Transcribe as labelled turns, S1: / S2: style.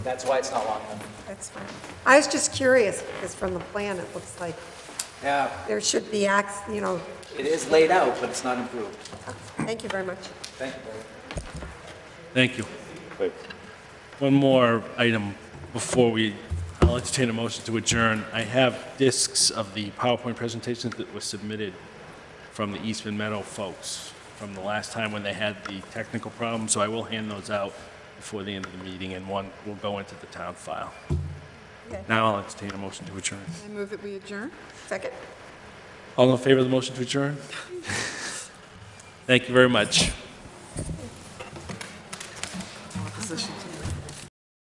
S1: That's why it's not long enough.
S2: That's fine. I was just curious, because from the plan, it looks like
S1: Yeah,
S2: there should be acts, you know,
S1: it is laid out, but it's not improved.
S2: thank you very much.
S1: Thank you, Barry.
S3: Thank you. One more item before we, I'll entertain a motion to adjourn. I have discs of the PowerPoint presentations that were submitted from the Eastman Meadow folks from the last time when they had the technical problem, so I will hand those out before the end of the meeting, and one will go into the town file.
S2: Okay.
S3: Now I'll entertain a motion to adjourn.
S4: I move that we adjourn.
S2: Second.
S3: All in favor of the motion to adjourn? Thank you very much.